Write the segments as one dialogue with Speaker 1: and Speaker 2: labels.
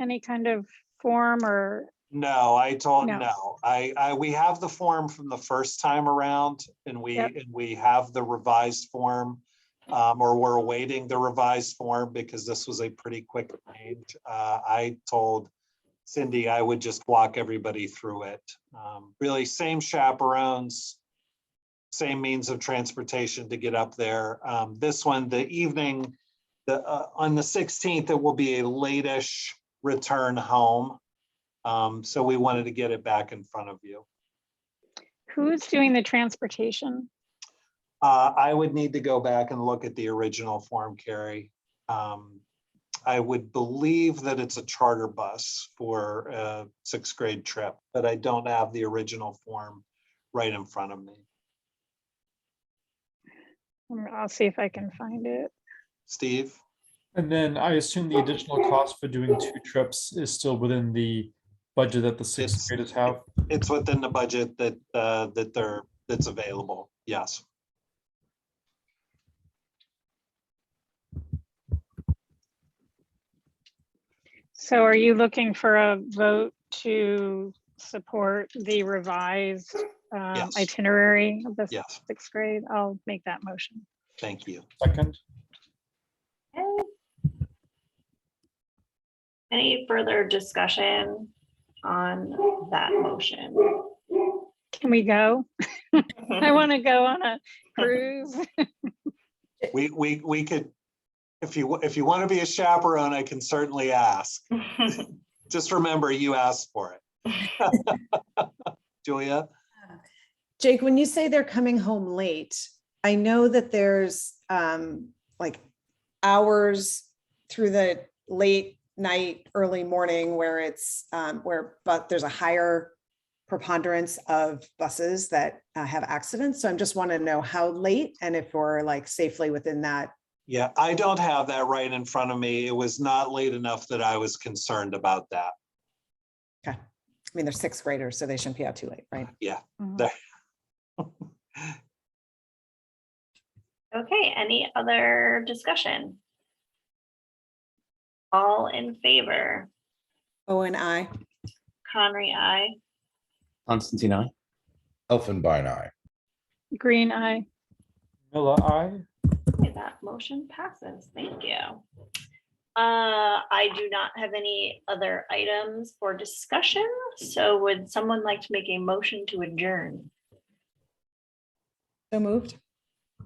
Speaker 1: any kind of form or,
Speaker 2: No, I told,
Speaker 1: No.
Speaker 2: no, I, I, we have the form from the first time around and we,
Speaker 1: Yep.
Speaker 2: and we have the revised form. Um, or we're awaiting the revised form because this was a pretty quick change. Uh, I told Cindy I would just walk everybody through it. Um, really same chaperones, same means of transportation to get up there. Um, this one, the evening, the, uh, on the sixteenth, it will be a late-ish return home. Um, so we wanted to get it back in front of you.
Speaker 1: who's doing the transportation?
Speaker 2: Uh, I would need to go back and look at the original form, Carrie. Um, I would believe that it's a charter bus for a sixth grade trip, but I don't have the original form right in front of me.
Speaker 1: Mm, I'll see if I can find it.
Speaker 2: Steve?
Speaker 3: And then I assume the additional cost for doing two trips is still within the budget that the
Speaker 2: It's-
Speaker 3: sixth graders have.
Speaker 2: It's within the budget that, uh, that they're, that's available. Yes.
Speaker 1: So are you looking for a vote to support the revised um,
Speaker 2: Yes.
Speaker 1: itinerary of the
Speaker 2: Yes.
Speaker 1: sixth grade? I'll make that motion.
Speaker 2: Thank you.
Speaker 3: Second,
Speaker 4: Okay. Any further discussion on that motion?
Speaker 1: Can we go? I want to go on a cruise.
Speaker 2: We, we, we could, if you, if you want to be a chaperone, I can certainly ask. Just remember, you asked for it. Julia,
Speaker 5: Jake, when you say they're coming home late, I know that there's um like hours through the late night, early morning where it's um where but there's a higher preponderance of buses that uh, have accidents. So I'm just want to know how late and if we're like safely within that.
Speaker 2: yeah, I don't have that right in front of me. It was not late enough that I was concerned about that.
Speaker 5: I mean, they're sixth graders, so they shouldn't be out too late, right?
Speaker 1: Mhm.
Speaker 4: Okay, any other discussion? All in favor?
Speaker 5: Oh, and I.
Speaker 4: Conry, I.
Speaker 6: Constantine, I.
Speaker 7: Elfenbein eye.
Speaker 1: Green eye.
Speaker 3: Miller, I.
Speaker 4: Okay, That motion passes. Thank you. Uh, I do not have any other items for discussion, so would someone like to make a motion to adjourn?
Speaker 5: So moved.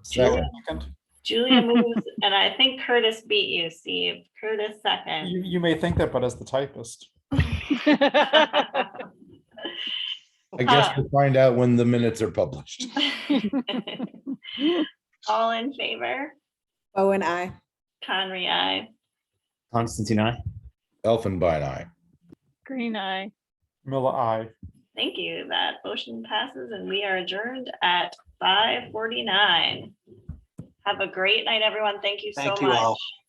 Speaker 7: Second.
Speaker 3: Second,
Speaker 4: Julia moves, and I think Curtis beat you, Steve. Curtis
Speaker 3: you,
Speaker 4: second.
Speaker 3: you may think that, but as the typist.
Speaker 7: I guess
Speaker 4: Ah.
Speaker 7: we'll find out when the minutes are published.
Speaker 4: All in favor?
Speaker 5: Oh, and I.
Speaker 4: Conry, I.
Speaker 6: Constantine, I.
Speaker 7: Elfenbein eye.
Speaker 1: Green eye.
Speaker 3: Miller, I.
Speaker 4: Thank you. That motion passes and we are adjourned at five forty-nine. Have a great night, everyone. Thank you so
Speaker 2: Thank you all.
Speaker 4: much.